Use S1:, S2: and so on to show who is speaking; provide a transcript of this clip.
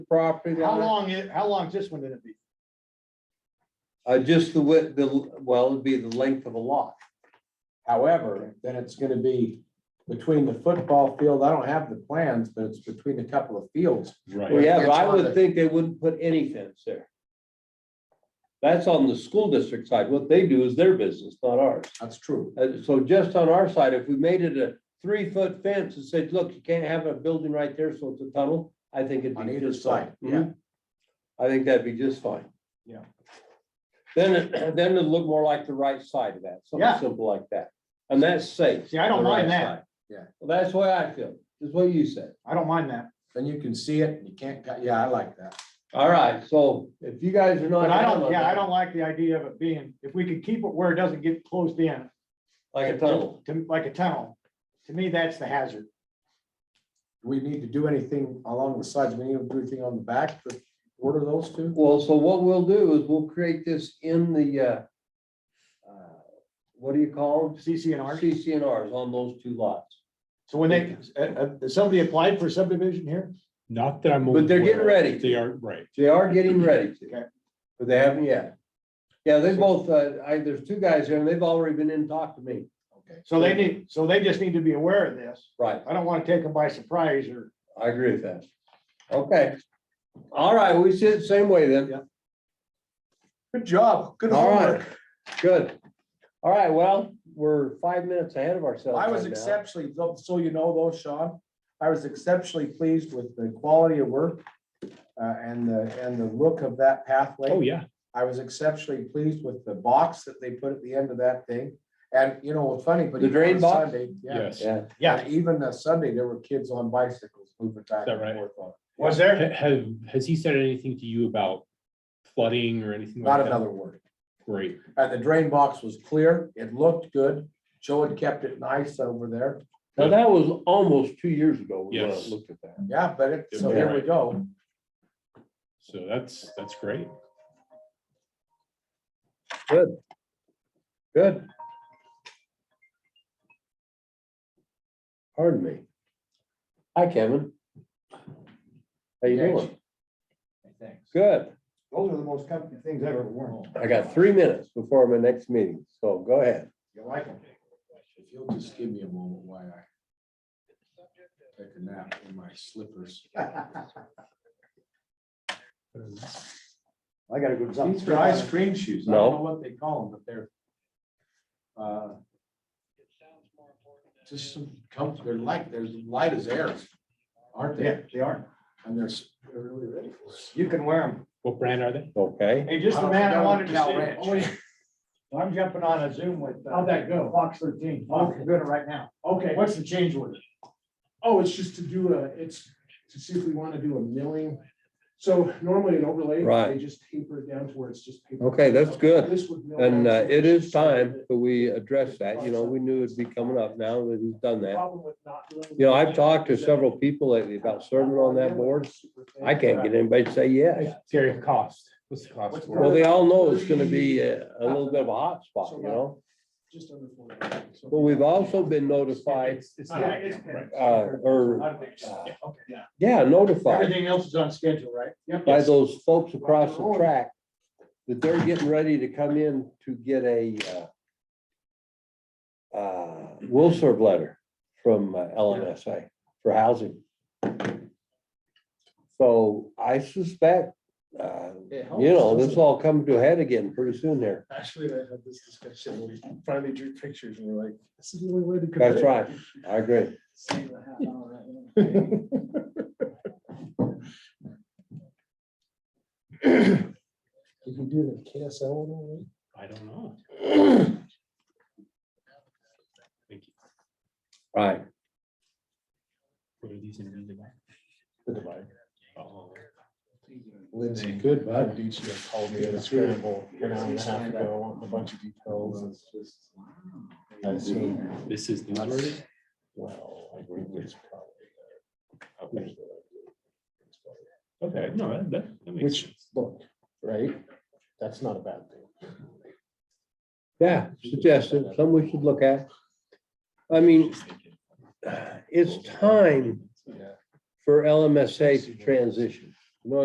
S1: property
S2: How
S1: line?
S2: long, i- how long's this one gonna be?
S1: Uh, just the width, the, well, it'd be the length of a lot.
S3: However, then it's gonna be between the football field, I don't have the plans, but it's between a couple of fields.
S1: Well,
S4: Right.
S1: yeah, but I
S3: It's on
S1: would
S3: the-
S1: think they wouldn't put any fence there. That's on the school district side. What they do is their business, not ours.
S3: That's true.
S1: Uh, so just on our side, if we made it a three-foot fence and said, look, you can't have a building right there, so it's a tunnel, I think it'd
S3: On
S1: be
S3: either
S1: just
S3: side,
S1: fine.
S3: yeah.
S1: Mhm. I think that'd be just fine.
S3: Yeah.
S1: Then, it- then it'd look more like the right side of that,
S2: Yeah.
S1: something simple like that. And that's safe.
S2: See, I don't
S1: the right
S2: mind that.
S1: side.
S3: Yeah.
S1: Well, That's the way I feel, is what you said.
S2: I don't mind that,
S3: Then you can see it and you can't, cut- yeah, I like that.
S1: All right, so if you guys are not.
S2: but I
S1: down
S2: don't,
S1: on
S2: yeah, I
S1: that,
S2: don't like the idea of it being, if we could keep it where it doesn't get closed in.
S1: Like a
S2: to-
S1: tunnel.
S2: To, like a tunnel. To me, that's the hazard.
S3: Do we need to do anything along the sides? We need to do anything on the back to order those two?
S1: Well, so what we'll do is we'll create this in the, uh, uh, what do you call them?
S2: CCNR.
S1: CCNRs on those two lots.
S2: So when they, uh, uh, somebody applied for subdivision here?
S4: Not that I'm.
S1: But they're getting
S4: aware of.
S1: ready.
S4: They are, right.
S1: They are getting ready
S2: Okay.
S1: to, but they haven't yet. Yeah, they both, uh, I, there's two guys here and they've already been in and talked to me.
S3: Okay.
S2: So they need, so they just need to be aware of this.
S1: Right,
S2: I don't want to take them by surprise or,
S1: I agree with that. Okay. All right, we see it the same way then.
S2: Yeah.
S3: Good job. Good
S1: All right.
S3: homework.
S1: Good. All right, well, we're five minutes ahead of ourselves.
S3: I was
S1: right now.
S3: exceptionally, though- so you know though, Sean, I was exceptionally pleased with the quality of work uh, and the, and the look of that pathway.
S4: Oh, yeah.
S3: I was exceptionally pleased with the box that they put at the end of that thing. And you know, it's funny, but.
S1: The
S3: even on
S1: drain
S3: a
S1: box?
S3: Sunday, Yeah.
S4: Yes.
S1: Yeah,
S2: yeah,
S3: And Even a Sunday, there were kids on bicycles moving back
S4: Is that
S3: and
S4: right?
S3: forth on it.
S2: was there?
S4: Ha- Have, has he said anything to you about flooding or anything?
S3: Not
S4: like that?
S3: another word.
S4: Great.
S3: And the drain box was clear. It looked good. Joe had kept it nice over there.
S1: now that was almost two years ago. when I
S4: Yes.
S1: Looked at that.
S3: Yeah, but it, so here we go.
S4: So that's, that's great.
S1: Good. Pardon me. Hi, Kevin. How you
S3: Thanks.
S1: doing? Good.
S2: Those are the most comforting things I've ever worn.
S1: I got three minutes before my next meeting, so go ahead.
S2: You like them?
S3: If you'll just give me a moment while I take a nap in my slippers.
S2: I gotta go to
S3: These are ice cream shoes. I
S1: No.
S3: don't know what they call them, but they're. uh, Just some comfort, they're like, they're as light as air, aren't
S2: Yeah,
S3: they?
S2: they are.
S3: And they're, s- they're really ready for us.
S2: You can wear them.
S4: What brand are they?
S1: Okay.
S2: Hey, just
S3: I
S2: the
S3: don't
S2: man
S3: know,
S2: I wanted to
S3: Cal
S2: see.
S3: Ranch.
S2: Oh, yeah. I'm jumping on a Zoom with. How'd that go? Fox thirteen.
S5: Okay.
S2: I'm doing it right now.
S5: Okay,
S2: What's the change order?
S5: oh, it's just to do a, it's to see if we want to do a milling. So normally an overlay,
S1: Right.
S5: they just taper it down to where it's just. paper.
S1: Okay, that's good.
S5: This would mill
S1: And
S5: down
S1: uh,
S5: to
S1: it is
S5: just so
S1: time
S5: that
S1: that we address that. You know, we knew it'd be coming up now that he's done
S5: the
S1: that.
S5: problem with not doing-
S1: You know, I've talked to several people lately about serving on that board. I can't get anybody to say yes.
S4: Gary, cost. What's the cost?
S5: What's
S4: for it?
S1: Well, they all know it's gonna be a, a little bit of a hot spot, you know?
S5: Just under four dollars, so-
S1: But we've also been notified,
S4: It's- it's
S2: Yeah,
S4: not-
S2: it's-
S4: right.
S1: uh, or,
S5: Yeah, okay, yeah.
S1: yeah, notified
S2: Everything else is on schedule, right? Yep.
S1: by those folks across the track that they're getting ready to come in to get a, uh, uh, will serve letter from uh, LMSA for housing. So I suspect, uh,
S5: It helps,
S1: you know, this
S5: doesn't it?
S1: will all come to a head again pretty soon here.
S5: Actually, I had this discussion, when we finally drew pictures and we're like, this is the only way to. convey
S1: That's
S5: it.
S1: right. I agree.
S5: Save a half hour, right? Did you do the KSL one?
S4: I don't know. Thank you.
S1: Right.
S4: What are these in the back?
S3: The divide.
S4: Oh,
S3: Lindsay, good bud.
S5: Duccio called me at a scramble an hour and a half ago, wanting a bunch of details and it's just. I assume,
S4: This is newsworthy?
S5: well, I believe it's probably.
S4: Okay, Okay. no, that- that, that makes
S5: Which-
S4: sense.
S5: Look, right? That's not a bad thing.
S1: Yeah, suggested, some we should look at. I mean,
S4: Just thinking.
S1: it's time
S5: Yeah.
S1: for LMSA to transition.